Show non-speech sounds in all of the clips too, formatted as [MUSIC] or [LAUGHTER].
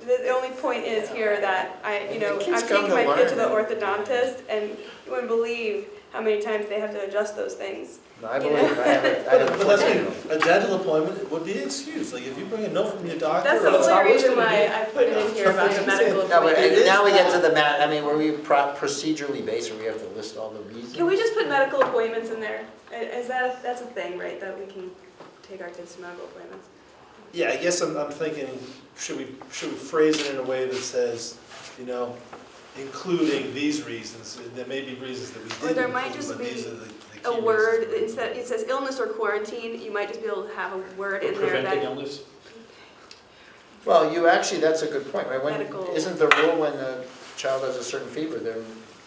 The, the only point is here that I, you know, The I'm kids come taking to my kid to the learn. orthodontist and you wouldn't believe how many times they have to adjust those things. No, I You believe, it. I have a, I have a But that's fourteen year like, a dental appointment would be excused, like if you bring a note from your doctor. That's the or- only reason why I put it in here about the medical No, but appointment. It now we is get to the ma, I mean, were we pro- procedurally based, where we have to list all the reasons? Can we just put medical appointments in there? I- Is that, that's a thing, right, that we can take our kids to medical appointments? Yeah, I guess I'm, I'm thinking, should we, should we phrase it in a way that says, you know, including these reasons, and there may be reasons that we Or didn't there might include, just but be these are the, the key A reasons. word, instead, it says illness or quarantine, you might just be able to have a word in there Preventing that, illness? Well, you, actually, that's a good point, right? When, Medical. isn't the rule when the child has a certain fever, they're,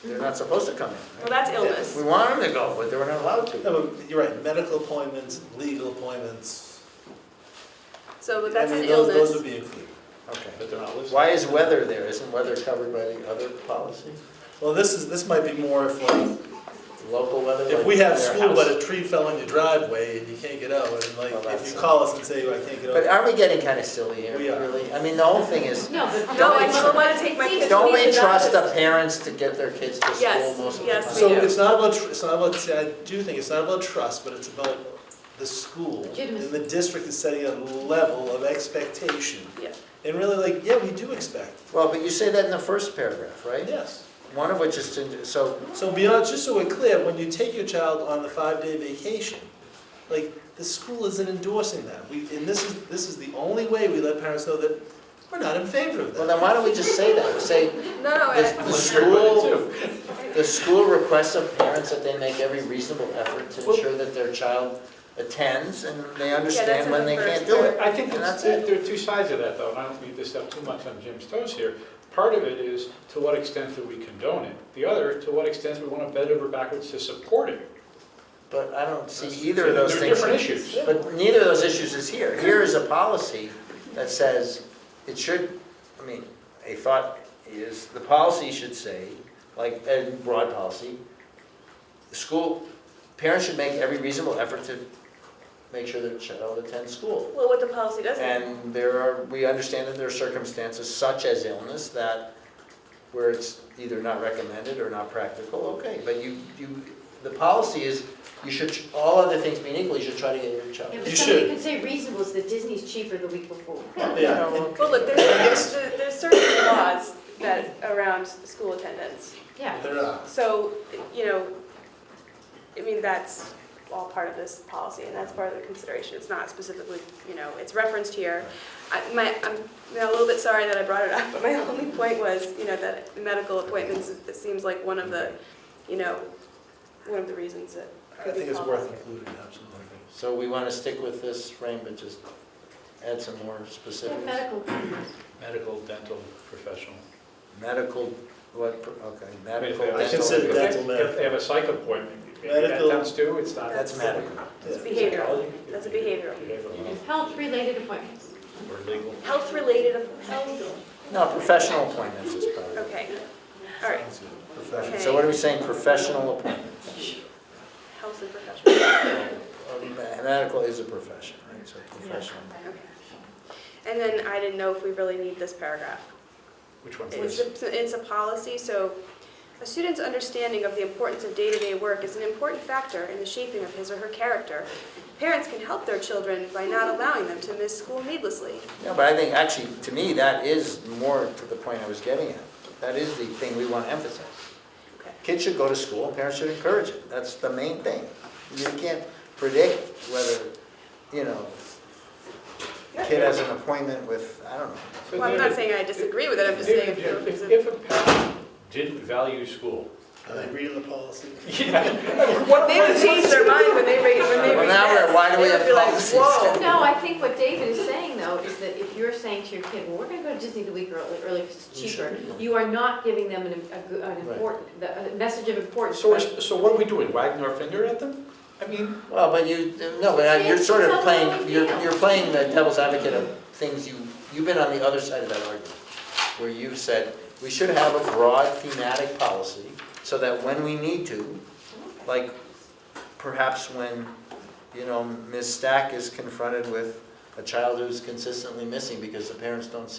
they're not supposed to come in? well, right? that's illness. We want them to go, but they were not allowed to. No, but you're right, medical appointments, legal appointments. So, I but that's mean, an those- illness. Those would be included. Okay. But they're not listed. Why is weather there? Isn't weather covered by the other policy? Well, this is, this might be more if like, Local weather? if like we have their school, but house? a tree fell in your driveway and you can't get out, and like, Well, if that's- you call us and say, I can't get But out. aren't we getting kind of silly here, We are. really? I mean, the whole thing is, No, but. No, I still want to take my kids. don't to we the trust doctors. the parents to get their kids to school Yes, most of the time? yes, we So do. it's not about, tr- it's not about, see, I do think it's not about trust, but it's about the school. Legitimacy. And the district is setting a level of expectation. Yeah. And really like, yeah, we do expect, Well, but you say that in the first paragraph, right? yes. One of which is to, so, So beyond, just so we're clear, when you take your child on the five-day vacation, like, the school isn't endorsing that. We, and this is, this is the only way we let parents know that we're not in favor of well, that. then why don't we just say that? Say, No, no, the I- the school, the school requests of parents that they make every reasonable effort to Well- ensure that their child attends and they that's understand in when the they first can't do it. I think And that's that's, there it. there are two sides of that, though, and I don't mean to step too much on Jim's toes here. Part of it is to what extent do we condone it? The other, to what extent we want to bend over backwards to support it? But I don't see either of those They're things. different issues. But neither of those issues is here. Here is a policy that says it should, I mean, a thought is, the policy should say, like, and broad policy, the school, parents should make every reasonable effort to make sure their child attends school. Well, what the policy does And there are, we understand that there are circumstances such as illness that, where it's either not recommended or not practical, okay. But you, you, the policy is, you should, all other things being equal, you should try to get your child. Yeah, but You somebody should. could say reasonable is that Disney's cheaper the week before. Yeah. Well, look, there's, there's, there's certain laws that, around school attendance. Yeah. They're not. So, you know, I mean, that's all part of this policy, and that's part of the consideration. It's not specifically, you know, it's referenced here. I, my, I'm you know, a little bit sorry that I brought it up, [LAUGHS] but my only point was, you know, that medical appointments, it seems like one of the, you know, one of the reasons that. I think it's worth including, absolutely. So we want to stick with this frame, but just add some more Yeah, specifics. medical appointments. Medical, dental, professional. Medical, what, pro- okay, If medical, they have a- I consider dental. if they- dental medical. If they have a psych appointment, maybe that Medical- counts too, it's not. That's medical. It's Yeah. behavioral, that's a behavioral. Behavioral Health-related appointments. or legal. Health-related, health, No, professional appointments is probably. okay, all right. professional. So what are we saying, professional appointments? Health and professional. Medical is a profession, right, so professional. Okay. And then I didn't know if we really need this paragraph. Which one's It's this? a, it's a policy, so a student's understanding of the importance of day-to-day work is an important factor in the shaping of his or her character. Parents can help their children by not allowing them to miss school needlessly. No, but I think actually, to me, that is more to the point I was getting at. That is the thing we want to emphasize. Okay. Kids should go to school, parents should encourage it. That's the main thing. You can't predict whether, you know, a kid has an appointment with, I don't know. So Well, I'm David- not saying I disagree with it, I'm just saying. David, if there was If a- if a parent didn't value school, Are they reading the policy? They would change their mind when they read, when they Well, read now we're- this. why do we They would have be like, policies? "Whoa." No, I think what David is saying though is that if you're saying to your kid, well, we're gonna go to Disney the week early, early because it's You cheaper, should. you are not giving them an, a good- an Right. important, the, a message of importance. So, about- we're- so what are we doing, wagging our finger at them? I mean, Well, but you, no, but you're sort of Kids tell playing, them how they you're, feel. you're playing the devil's advocate of things you, you've been on the other side of that argument, where you've said, we should have a broad thematic policy, so that when we need to, like, perhaps when, you know, Ms. Stack is confronted with a child who's consistently missing because the parents don't see